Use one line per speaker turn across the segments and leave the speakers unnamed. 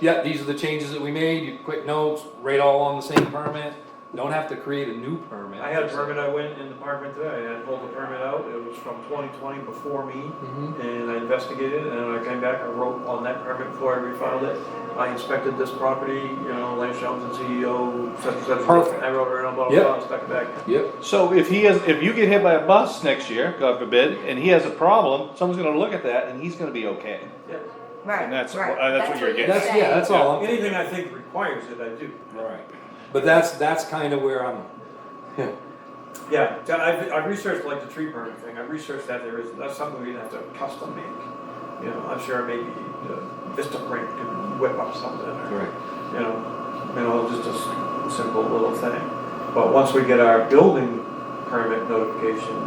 yeah, these are the changes that we made, you quick notes, right all on the same permit, don't have to create a new permit.
I had a permit, I went in the department today, I pulled the permit out, it was from twenty twenty before me,
Mhm.
and I investigated, and I came back, I wrote on that permit before I refiled it. I inspected this property, you know, Lance Johnson, CEO, such and such.
Perfect.
I wrote around, blah, blah,
Yep.
blah, stuck it back.
Yep,
So if he has, if you get hit by a bus next year, God forbid, and he has a problem, someone's gonna look at that and he's gonna be okay.
Yeah.
Right,
And that's-
right.
uh, that's what you're getting
that's, yeah, that's all, I'm-
Anything I think requires it, I do.
right, but that's, that's kinda where I'm,
Yeah, so I, I researched like the tree burn thing, I researched that there is, that's something we'd have to custom make. You know, I'm sure maybe uh, Vista Print can whip up something or,
right.
you know, you know, just a s- simple little thing. But once we get our building permit notification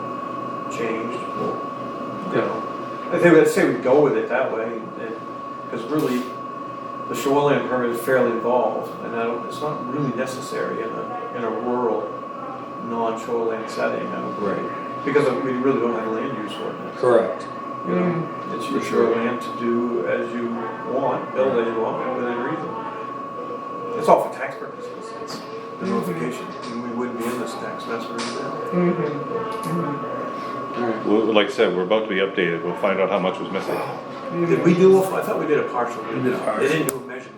changed, we'll, you know, I think, I'd say we go with it that way. Because really, the shoreline permit is fairly involved and I don't, it's not really necessary in a, in a rural, non-shoreline setting, I don't
Right.
because of- we really don't have a land use ordinance.
Correct,
You know, it's your
sure.
land to do as you want, build as you want, within reason. It's all for tax purposes, it's the
Mm-hmm.
notification, and we wouldn't be in this tax mess we're in now.
alright,
Well, Like I said, we're about to be updated, we'll find out how much was missing.
Mm-hmm.
Did we do, a- I thought we did a partial,
We did a partial.
they didn't do measurements.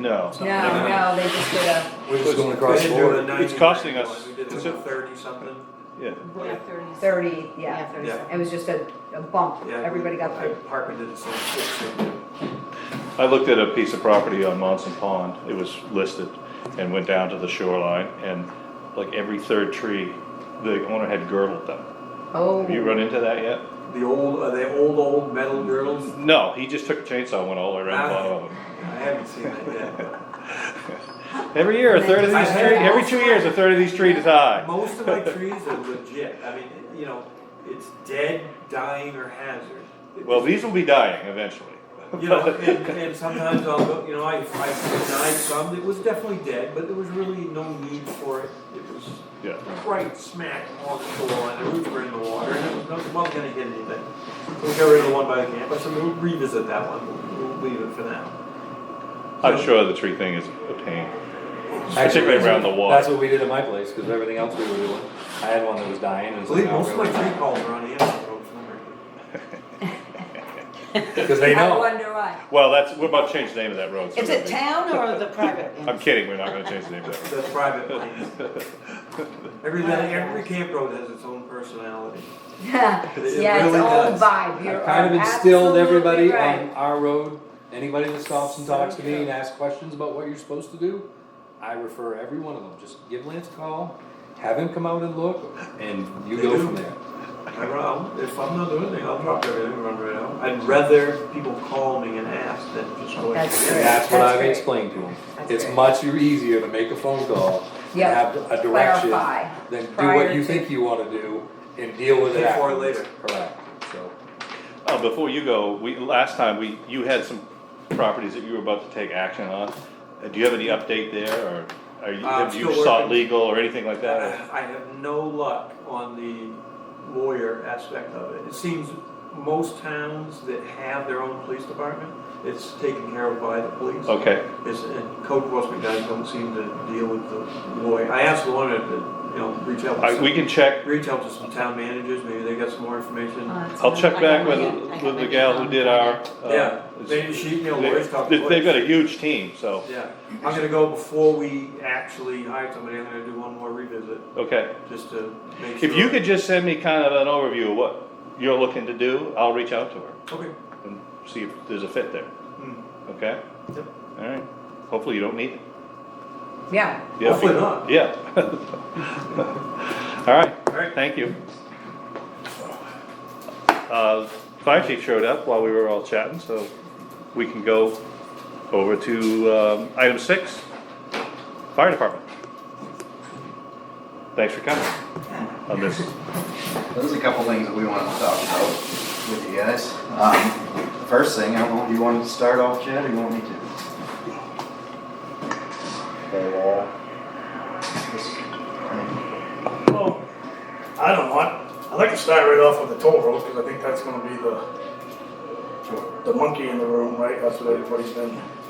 No.
No, no, they just did a,
we're just going across
They
the
didn't do a
board,
90,
It's costing us-
We did
it's
a
a-
thirty something.
Yeah,
Yeah.
Yeah, thirty.
thirty,
Yeah,
yeah,
thirty.
Yeah.
it was just a, a bump,
Yeah,
everybody got
I-
thirty.
Parker did the same thing.
I looked at a piece of property on Monson Pond, it was listed, and went down to the shoreline, and like every third tree, the owner had girdled them.
Oh,
Have you run into that yet?
The old, are they old, old metal girls?
No, he just took a chainsaw and went all the way around the bottom of
I haven't seen that yet. but-
them. Every year, a third of these trees, every two years, a third of these trees die.
Most of my trees are legit, I mean, you know, it's dead, dying, or hazard.
Well, these will be dying eventually.
You know, and, and sometimes I'll go, you know, I, I denied some that was definitely dead, but there was really no need for it. It was
Yeah.
right smack on the shore, and the roots were in the water, and it was, no- it wasn't gonna hit anything. We'll get rid of the one by the campus, and we'll revisit that one, We'll- we'll leave it for now.
I'm sure the tree thing is a pain.
Actually,
Particularly around the water.
That's what we did at my place, cause everything else we were doing, I had one that was dying and
I
it's like, oh,
believe
no,
most of my
we're
tree
gonna-
calls are on Anderson Road somewhere.
cause they
I
know,
wonder why.
Well, that's, we're about to change the name of that road. so
Is
it'll
it
be-
town or the private?
I'm kidding, we're not gonna change the name of
The private lanes.
that road.
Every, every camp road has its own personality.
Yeah,
It
it's
really
all
does.
vibe,
I've
you're
kind of instilled
absolutely
everybody
right.
on our road, anybody that stops and talks to me and asks questions about what you're supposed to do, I refer every one of them, just give Lance a call, have him come out and look, and you
They
go
do.
from there.
I run, I'll- if I'm not doing anything, I'll drop everything and run right out. I'd rather people call me and ask than just go. ahead.
That's
And
Great.
that's what
That's
I've
great.
explained to him.
That's
It's
great.
much easier to make a phone call and
Yep.
have a direction
Clarify
than do
prior
what you
to-
think you wanna do and deal with it
Before
afterwards.
later.
Correct, so.
Uh, before you go, we, last time, we, you had some properties that you were about to take action on. Uh, Do you have any update there, or are you,
Uh,
have
still
you
working.
sought legal or anything like that?
I have no luck on the lawyer aspect of it. It seems most towns that have their own police department, it's taken care of by the police.
Okay,
It's, and code enforcement guys don't seem to deal with the lawyer. I asked the lawyer to, you know, reach out to
I, we
some,
can check,
reach out to some town managers, maybe they got some more information.
Oh,
I'll check back with, with the gal who did our. uh,
Yeah, maybe she, you know, lawyers talk.
They- They've
lawyers.
got a huge team, so,
Yeah, I'm gonna go before we actually hire somebody, I'm gonna do one more revisit,
okay.
just to make sure.
If you could just send me kind of an overview of what you're looking to do, I'll reach out to her
Okay.
and see if there's a fit there,
Hmm.
okay?
Yep.
All right, hopefully you don't need it.
Yeah,
Yeah, if you-
Hopefully not.
Yeah. All right,
Alright.
thank you. Uh, Fire chief showed up while we were all chatting, so we can go over to um, item six, fire department. Thanks for coming on this.
There's a couple things that we wanted to talk about with you guys. Um, First thing, I don't know, do you want to start off, Chad, or you want me to?
Well, I don't want, I'd like to start right off with the toll road, because I think that's gonna be the, the monkey in the room, right, that's what everybody's been